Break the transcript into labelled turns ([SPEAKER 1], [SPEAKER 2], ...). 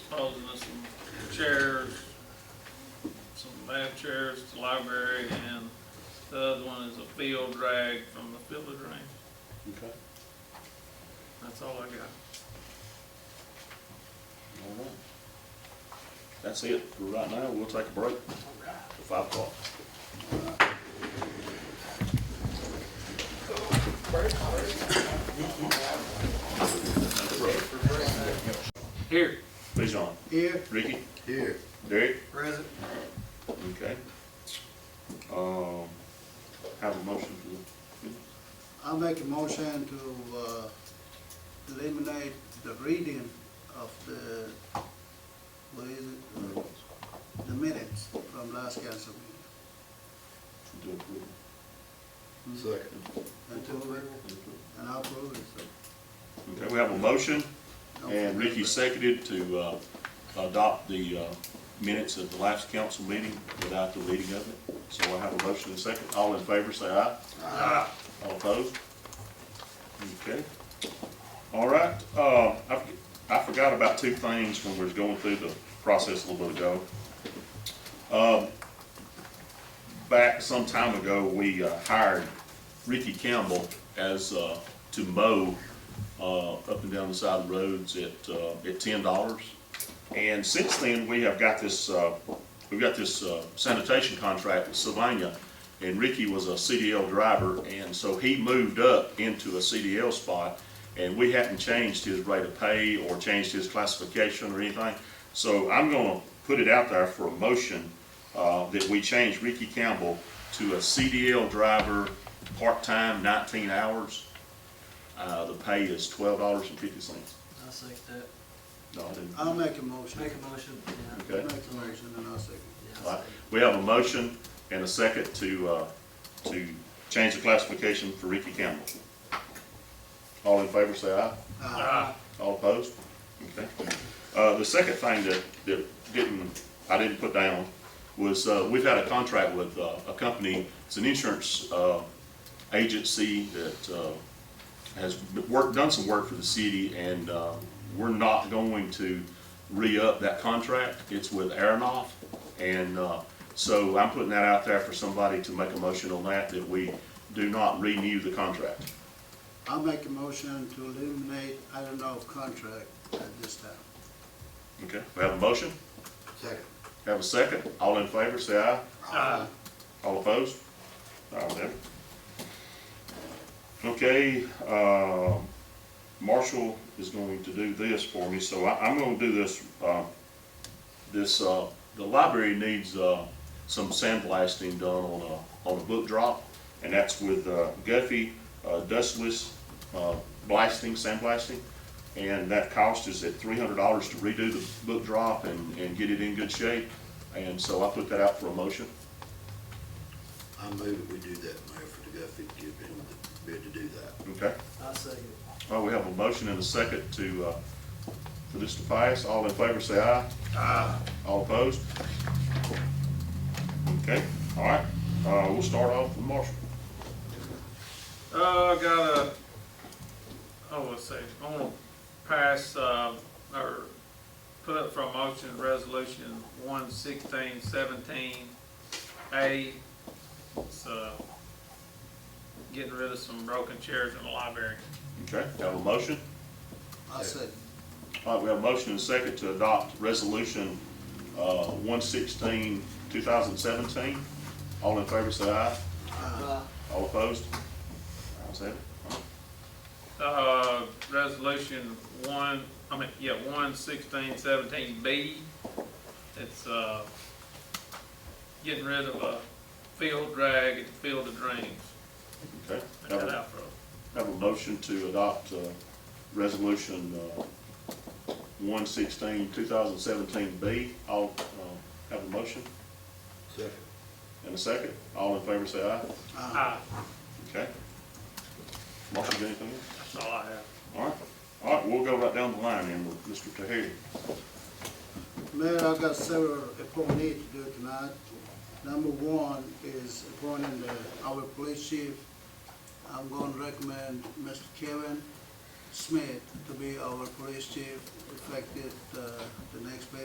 [SPEAKER 1] disposing of some chairs, some bath chairs to the library, and the other one is a field drag from the village range.
[SPEAKER 2] Okay,
[SPEAKER 1] That's all I got.
[SPEAKER 2] all right. That's it for right now. We'll take a break to five o'clock.
[SPEAKER 1] Here,
[SPEAKER 2] Bijan,
[SPEAKER 3] Here,
[SPEAKER 2] Ricky,
[SPEAKER 4] Here,
[SPEAKER 2] Derek,
[SPEAKER 3] present.
[SPEAKER 2] okay. Um, have a motion to,
[SPEAKER 3] I make a motion to uh, eliminate the reading of the, what is it? Uh, The minutes from last council meeting.
[SPEAKER 2] to approve.
[SPEAKER 4] second.
[SPEAKER 3] And to it, and I approve it, so.
[SPEAKER 2] Okay, we have a motion
[SPEAKER 3] don't
[SPEAKER 2] and
[SPEAKER 3] forget
[SPEAKER 2] Ricky
[SPEAKER 3] that.
[SPEAKER 2] seconded to, uh, adopt the, uh, minutes of the last council meeting without the reading of it. So I have a motion and a second. All in favor, say aye.
[SPEAKER 3] Ah.
[SPEAKER 2] Aye. All opposed? Okay. All right, uh, I, forg- I forgot about two things when we was going through the process a little bit ago. Um, back some time ago, we uh, hired Ricky Campbell as, uh, to mow, uh, up and down the side of the roads at, uh, at ten dollars. And since then, we have got this, uh, we've got this uh, sanitation contract with Sylvania, and Ricky was a CDL driver, and so he moved up into a CDL spot, and we hadn't changed his rate of pay or changed his classification or anything. So I'm gonna put it out there for a motion, uh, that we change Ricky Campbell to a CDL driver, part-time, nineteen hours. Uh, the pay is twelve dollars and fifty cents.
[SPEAKER 5] I'll second that.
[SPEAKER 2] No, I didn't.
[SPEAKER 3] I'll make a motion.
[SPEAKER 5] Make a motion, yeah.
[SPEAKER 2] Okay.
[SPEAKER 3] Make a motion and I'll second.
[SPEAKER 5] Yeah, I'll
[SPEAKER 2] All right.
[SPEAKER 5] second.
[SPEAKER 2] We have a motion and a second to, uh, to change the classification for Ricky Campbell. All in favor, say aye.
[SPEAKER 3] Ah.
[SPEAKER 5] Ah.
[SPEAKER 3] Aye.
[SPEAKER 2] All opposed? Okay. Uh, the second thing that, that didn't, I didn't put down was, uh, we've had a contract with, uh, a company, it's an insurance, uh, agency that, uh, has worked, done some work for the city, and uh, we're not going to re-up that contract. It's with Aronoff, and uh, so I'm putting that out there for somebody to make a motion on that, that we do not renew the contract.
[SPEAKER 3] I'll make a motion to eliminate, I don't know, contract at this time.
[SPEAKER 2] Okay, we have a motion,
[SPEAKER 4] Second.
[SPEAKER 2] have a second. All in favor, say aye.
[SPEAKER 5] Ah.
[SPEAKER 1] uh,
[SPEAKER 2] All opposed? All right. Okay, uh, Marshall is going to do this for me, so I, I'm gonna do this, uh, this, uh, the library needs, uh, some sandblasting done on a, on a book drop, and that's with, uh, Guffey, uh, dustless, uh, blasting, sandblasting. And that cost is at three hundred dollars to redo the book drop and, and get it in good shape, and so I put that out for a motion.
[SPEAKER 4] I move that we do that, Mayor, for the Guffey, give him the bid to do that.
[SPEAKER 2] Okay,
[SPEAKER 5] I'll second it.
[SPEAKER 2] well, we have a motion and a second to, uh, for this to pass. All in favor, say aye. Aye. All opposed? Okay, all right, uh, we'll start off with Marshall.
[SPEAKER 1] Uh, I got a, oh, let's see, I'm gonna pass, uh, or put up for a motion resolution one sixteen seventeen A. It's, uh, getting rid of some broken chairs in the library.
[SPEAKER 2] Okay, have a motion?
[SPEAKER 3] I'll second.
[SPEAKER 2] All right, we have a motion and a second to adopt resolution, uh, one sixteen, two thousand seventeen. All in favor, say aye.
[SPEAKER 5] Uh,
[SPEAKER 2] All opposed? Ayes have it. All right.
[SPEAKER 1] Uh, resolution one, I mean, yeah, one sixteen seventeen B. It's, uh, getting rid of a field drag at the Field of Dreams.
[SPEAKER 2] Okay.
[SPEAKER 1] I
[SPEAKER 2] Have
[SPEAKER 1] got
[SPEAKER 2] a-
[SPEAKER 1] out for
[SPEAKER 2] Have a motion to adopt, uh, resolution, uh, one sixteen, two thousand seventeen B. I'll, uh, have a motion
[SPEAKER 4] Second.
[SPEAKER 2] and a second. All in favor, say aye.
[SPEAKER 3] Uh,
[SPEAKER 1] Aye,
[SPEAKER 2] Okay. Marshall, you got anything else?
[SPEAKER 1] that's all I have.
[SPEAKER 2] All right, all right, we'll go right down the line then with Mr. Tahari.
[SPEAKER 3] Mayor, I've got several appointees to do tonight. Number one is appointing the, our police chief. I'm going to recommend Mr. Kevin Smith to be our police chief effective, uh, the next